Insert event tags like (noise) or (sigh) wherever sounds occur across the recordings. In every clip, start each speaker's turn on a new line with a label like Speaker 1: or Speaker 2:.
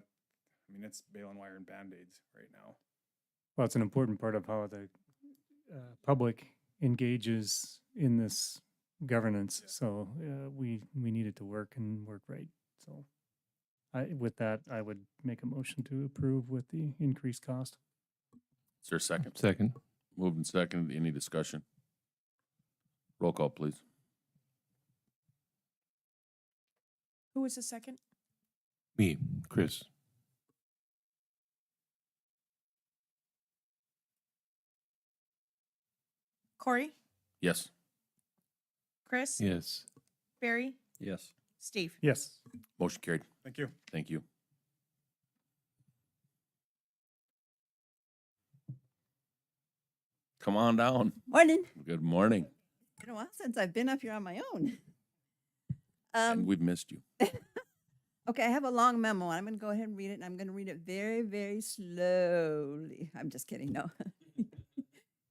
Speaker 1: I mean, it's baling wire and band-aids right now.
Speaker 2: Well, it's an important part of how the uh, public engages in this governance.
Speaker 1: Yeah.
Speaker 2: So uh, we we need it to work and work right. So, I with that, I would make a motion to approve with the increased cost.
Speaker 3: Is there a second?
Speaker 4: Second.
Speaker 3: Moved and second. Any discussion? Roll call, please.
Speaker 5: Who was the second?
Speaker 4: Me, Chris.
Speaker 5: Corey,
Speaker 3: Yes.
Speaker 5: Chris,
Speaker 4: Yes.
Speaker 5: Barry,
Speaker 3: Yes.
Speaker 5: Steve.
Speaker 2: Yes.
Speaker 3: Motion carried.
Speaker 1: Thank you.
Speaker 3: Thank you. Come on down.
Speaker 6: Morning.
Speaker 3: Good morning.
Speaker 6: Been a while since I've been up here on my own.
Speaker 3: And
Speaker 6: Um,
Speaker 3: we've missed you.
Speaker 6: okay, I have a long memo. I'm going to go ahead and read it, and I'm going to read it very, very slowly. (laughs) I'm just kidding. No.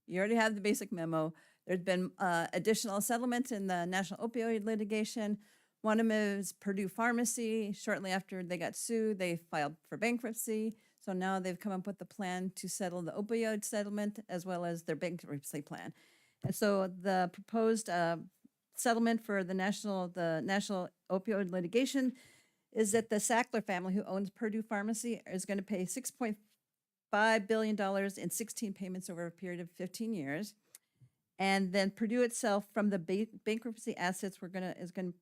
Speaker 6: you already have the basic memo. There's been uh, additional settlements in the national opioid litigation. One of them is Purdue Pharmacy. Shortly after they got sued, they filed for bankruptcy. So now they've come up with a plan to settle the opioid settlement as well as their bankruptcy plan. And so the proposed uh, settlement for the national the national opioid litigation is that the Sackler family, who owns Purdue Pharmacy, is going to pay six point five billion dollars in sixteen payments over a period of fifteen years. And then Purdue itself, from the ba- bankruptcy assets, we're gonna is going to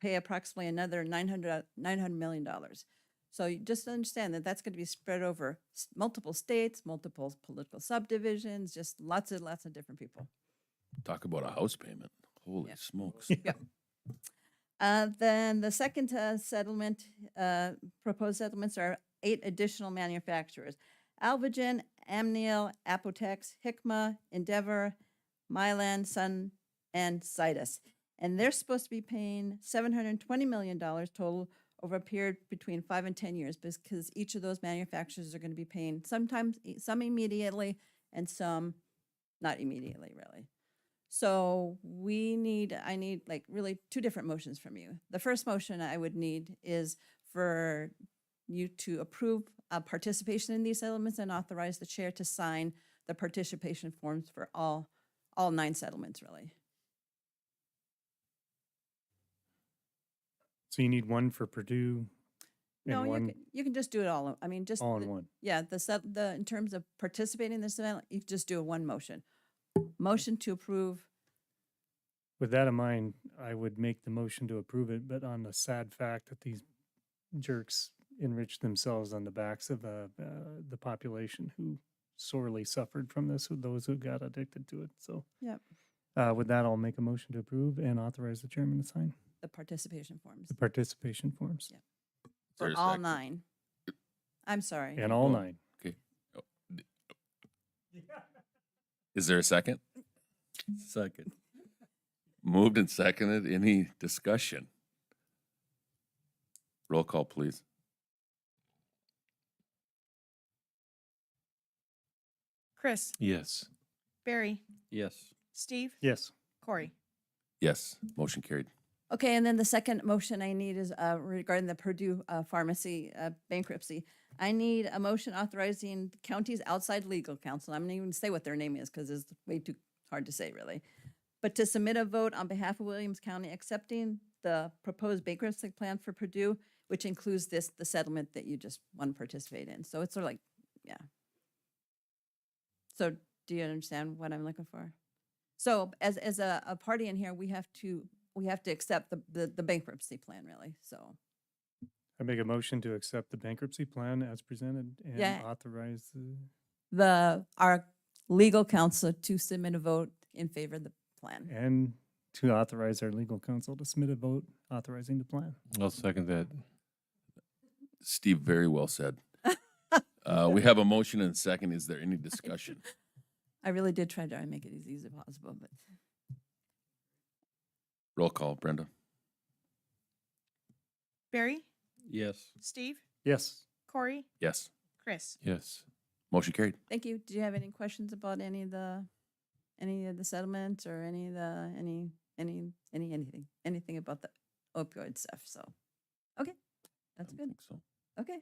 Speaker 6: pay approximately another 900 $900 million dollars. So you just understand that that's going to be spread over s- multiple states, multiple political subdivisions, just lots and lots of different people.
Speaker 3: Talk about a house payment. Holy
Speaker 6: Yeah.
Speaker 3: smokes. (laughs)
Speaker 6: Uh, then the second uh, settlement, uh, proposed settlements are eight additional manufacturers. Alvogen, Amneal, Apotex, Hikma, Endeavor, Mylan, Sun, and Citus. And they're supposed to be paying seven hundred and twenty million dollars total over a period between five and ten years because each of those manufacturers are gonna be paying sometimes, i- some immediately and some not immediately, really. So we need, I need like really two different motions from you. The first motion I would need is for you to approve uh, participation in these settlements and authorize the chair to sign the participation forms for all, all nine settlements, really.
Speaker 2: So you need one for Purdue and
Speaker 6: No, you
Speaker 2: one
Speaker 6: can, you can just do it all, I mean, just.
Speaker 2: all in
Speaker 6: the-
Speaker 2: one.
Speaker 6: Yeah, the sub, the, in terms of participating in this event, you just do a one motion. Motion to approve,
Speaker 2: With that in mind, I would make the motion to approve it, but on the sad fact that these jerks enrich themselves on the backs of uh, uh, the population who sorely suffered from this, who- those who got addicted to it. So,
Speaker 6: Yep.
Speaker 2: Uh, with that, I'll make a motion to approve and authorize the chairman to sign
Speaker 6: the participation forms
Speaker 2: the participation forms
Speaker 6: Yep.
Speaker 3: Is there
Speaker 6: for
Speaker 3: a
Speaker 6: all
Speaker 3: second?
Speaker 6: nine. I'm sorry.
Speaker 2: and all
Speaker 3: Oh.
Speaker 2: nine.
Speaker 3: Is there a second? Second. Moved and seconded. Any discussion? Roll call, please.
Speaker 5: Chris,
Speaker 4: Yes.
Speaker 5: Barry,
Speaker 3: Yes.
Speaker 5: Steve,
Speaker 2: Yes.
Speaker 5: Corey.
Speaker 3: Yes. Motion carried.
Speaker 6: Okay, and then the second motion I need is uh, regarding the Purdue uh, Pharmacy uh, bankruptcy. I need a motion authorizing counties outside legal counsel. I'm not even gonna say what their name is because it's way too hard to say, really. But to submit a vote on behalf of Williams County accepting the proposed bankruptcy plan for Purdue, which includes this, the settlement that you just want to participate in. So it's sort of like, yeah. So do you understand what I'm looking for? So as, as a, a party in here, we have to, we have to accept the, the, the bankruptcy plan really, so.
Speaker 2: I make a motion to accept the bankruptcy plan as presented and
Speaker 6: Yeah.
Speaker 2: authorize uh, the.
Speaker 6: The, our legal counsel to submit a vote in favor of the plan.
Speaker 2: and to authorize our legal counsel to submit a vote authorizing the plan.
Speaker 4: I'll second that.
Speaker 3: Steve, very well said.
Speaker 6: (laughs)
Speaker 3: Uh, we have a motion and a second. Is there any discussion?
Speaker 6: I really did try to make it as easy as possible, but
Speaker 3: Roll call, Brenda.
Speaker 5: Barry,
Speaker 4: Yes.
Speaker 5: Steve,
Speaker 2: Yes.
Speaker 5: Corey,
Speaker 3: Yes.
Speaker 5: Chris.
Speaker 4: Yes.
Speaker 3: Motion carried.
Speaker 6: thank you. Do you have any questions about any of the, any of the settlements or any of the, any, any, any, anything, anything about the opioid stuff, so. Okay, that's
Speaker 3: I
Speaker 6: good.
Speaker 3: think so.